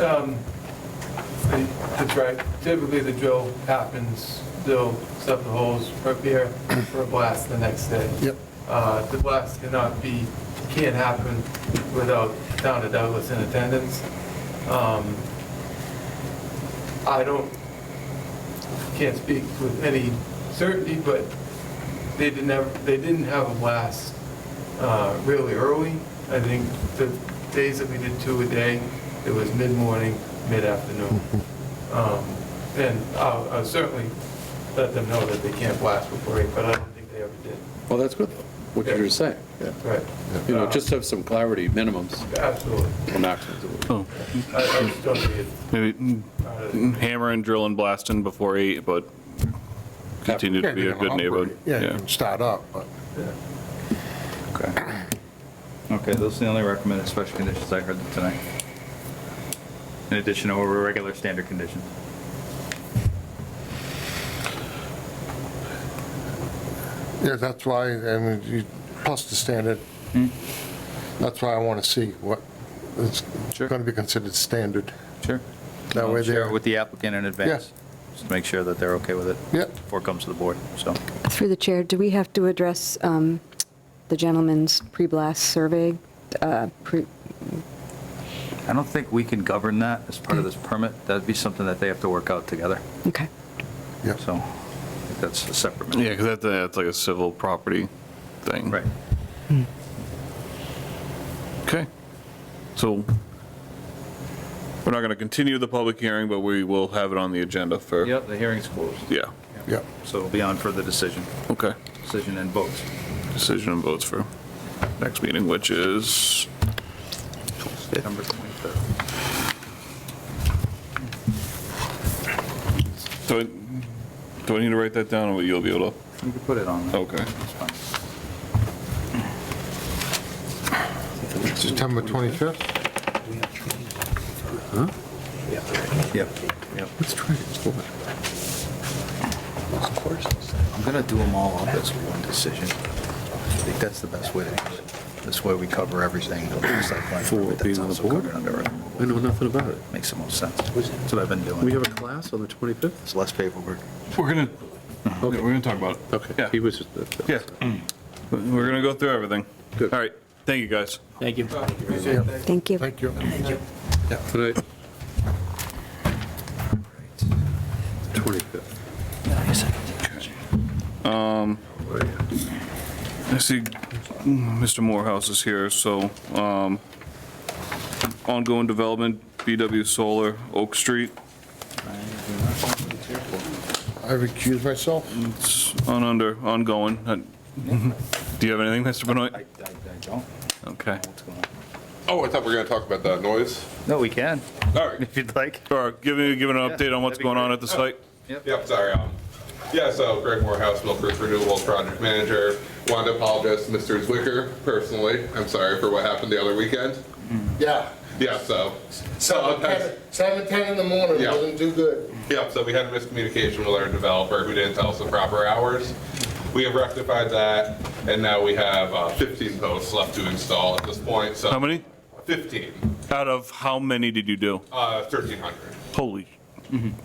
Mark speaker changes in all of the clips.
Speaker 1: Um, they- That's right. Typically, the drill happens, they'll set the holes, prepare for a blast the next day.
Speaker 2: Yep.
Speaker 1: Uh, The blast cannot be, can't happen without town of Douglas in attendance. Um, I don't, can't speak with any certainty, but they didn't have, they didn't have a blast uh, really early. I think the days that we did two a day, it was mid-morning, mid-afternoon. Um, And I'll I'll certainly let them know that they can't blast before eight, but I don't think they ever did.
Speaker 3: Well, that's good, what you were saying.
Speaker 1: Right.
Speaker 3: You know, just have some clarity, minimums
Speaker 1: Absolutely.
Speaker 3: or maximums.
Speaker 4: Oh,
Speaker 1: I I just don't think it's uh,
Speaker 4: maybe mm,
Speaker 1: part of the-
Speaker 4: hammering, drilling, blasting before eight, but continue to be a good neighborhood.
Speaker 2: Yeah, you can start up, but
Speaker 1: yeah.
Speaker 5: Okay. Okay, those are the only recommended special conditions I heard tonight. In addition to our regular standard conditions.
Speaker 2: yeah, that's why, and you, plus the standard. That's why I want to see what is
Speaker 5: Sure.
Speaker 2: going to be considered standard.
Speaker 5: Sure.
Speaker 2: That way
Speaker 5: Share
Speaker 2: there.
Speaker 5: it with the applicant in advance. Just to make sure that they're okay with it.
Speaker 2: Yeah.
Speaker 5: Before it comes to the board, so.
Speaker 6: Through the chair, do we have to address um, the gentleman's pre-blast survey? uh, pre-
Speaker 5: I don't think we can govern that as part of this permit. That'd be something that they have to work out together,
Speaker 6: Okay,
Speaker 2: Yep.
Speaker 5: so I think that's a separate. matter.
Speaker 4: Yeah, because that's, that's like a civil property thing.
Speaker 5: Right.
Speaker 4: Okay. So we're not going to continue the public hearing, but we will have it on the agenda for.
Speaker 5: Yep, the hearing's closed,
Speaker 4: Yeah,
Speaker 2: Yep.
Speaker 5: so it'll be on for the decision,
Speaker 4: okay.
Speaker 5: decision and votes.
Speaker 4: Decision and votes for next meeting, which is,
Speaker 5: September 23rd.
Speaker 4: do I, do I need to write that down or you'll be able to?
Speaker 5: You can put it on.
Speaker 4: Okay.
Speaker 5: It's fine.
Speaker 2: September 25th?
Speaker 5: Yep, yep. I'm gonna do them all up as one decision. I think that's the best way to do it. This way we cover everything. the site plan
Speaker 3: For
Speaker 5: permit that's
Speaker 3: being on the
Speaker 5: also
Speaker 3: board?
Speaker 5: covered under it.
Speaker 3: I know nothing about it.
Speaker 5: Makes the most sense. That's what I've been
Speaker 3: We
Speaker 5: doing.
Speaker 3: have a class on the 25th?
Speaker 5: It's less paperwork.
Speaker 4: We're going to, we're going to talk about it.
Speaker 3: Okay.
Speaker 4: Yeah.
Speaker 3: He was just. uh,
Speaker 4: Yeah. We're going to go through everything.
Speaker 3: Good.
Speaker 4: All right. Thank you, guys.
Speaker 7: Thank you.
Speaker 1: Appreciate it. Thank you.
Speaker 6: thank you.
Speaker 2: Thank you.
Speaker 3: Tonight. 25th.
Speaker 4: I see Mr. Morehouse is here, so um, ongoing development, BW Solar, Oak Street.
Speaker 2: I recuse myself.
Speaker 4: It's on under, ongoing. Uh, Do you have anything, Mr.
Speaker 5: I, I
Speaker 4: Benoit?
Speaker 5: I don't know
Speaker 4: Okay.
Speaker 5: what's going on.
Speaker 8: Oh, I thought we were going to talk about the noise.
Speaker 5: No, we can,
Speaker 8: All right.
Speaker 5: if you'd like.
Speaker 4: Or give me, give an update on what's
Speaker 5: that'd be
Speaker 4: going on
Speaker 5: great.
Speaker 4: at the site?
Speaker 8: Yep, sorry. Um, yeah, so Greg Morehouse, Milford Renewables Project Manager. Wanted to apologize to Mr. Zwicker personally. I'm sorry for what happened the other weekend.
Speaker 2: Yeah.
Speaker 8: Yeah, so,
Speaker 2: Seven ten seven ten in the morning,
Speaker 8: Yeah.
Speaker 2: wasn't too good.
Speaker 8: yeah, so we had a miscommunication with our developer who didn't tell us the proper hours. We have rectified that, and now we have uh, 15 posts left to install at this point, so.
Speaker 4: How many?
Speaker 8: 15,
Speaker 4: Out of how many did you do?
Speaker 8: uh, 1,300.
Speaker 4: Holy,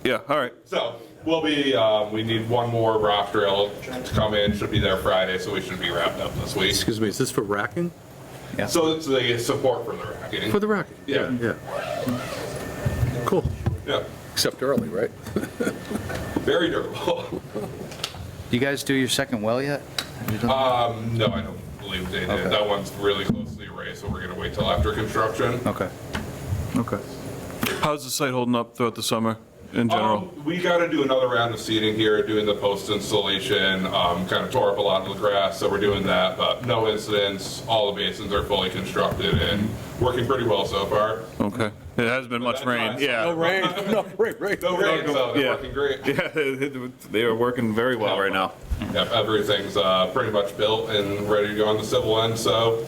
Speaker 4: yeah, all right.
Speaker 8: So we'll be, um, we need one more rock drill to come in, should be there Friday, so we should be wrapped up this week.
Speaker 3: Excuse me, is this for racking?
Speaker 8: So it's the support for the racking.
Speaker 3: For the racking?
Speaker 8: Yeah.
Speaker 3: Yeah. Cool.
Speaker 8: Yeah,
Speaker 3: Except early, right?
Speaker 8: very durable.
Speaker 5: Do you guys do your second well yet? Have you done-
Speaker 3: Uh,
Speaker 8: Um, no, I don't believe they
Speaker 5: Okay.
Speaker 8: did. That one's really closely erased, so we're gonna wait till after construction.
Speaker 5: Okay, okay.
Speaker 4: How's the site holding up throughout the summer in general?
Speaker 8: Um, We gotta do another round of seeding here, doing the post installation, um, kind of tore up a lot of the grass, so we're doing that, but no incidents. All the basins are fully constructed and working pretty well so far.
Speaker 4: Okay. It hasn't been much
Speaker 8: that's
Speaker 4: rain,
Speaker 8: not-
Speaker 4: yeah.
Speaker 3: Right, no, right, right.
Speaker 8: No rain, so
Speaker 4: Yeah.
Speaker 8: they're working great.
Speaker 4: Yeah, they are working very well right now.
Speaker 8: Yep, everything's uh, pretty much built and ready to go on the civil end, so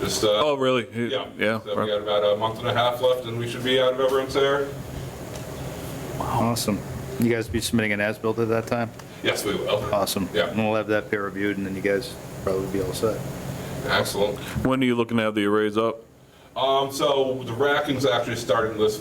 Speaker 8: just, uh,
Speaker 4: Oh, really?
Speaker 8: yeah.
Speaker 4: Yeah.
Speaker 8: So we got about a month and a half left and we should be out of everyone's hair.
Speaker 5: Awesome. You guys be submitting an as-built at that time?
Speaker 8: Yes, we will.
Speaker 5: Awesome.
Speaker 8: Yeah.
Speaker 5: And we'll have that peer reviewed, and then you guys probably be all set.
Speaker 8: Excellent.
Speaker 4: When are you looking to have the arrays up?
Speaker 8: Um, so the racking's actually starting this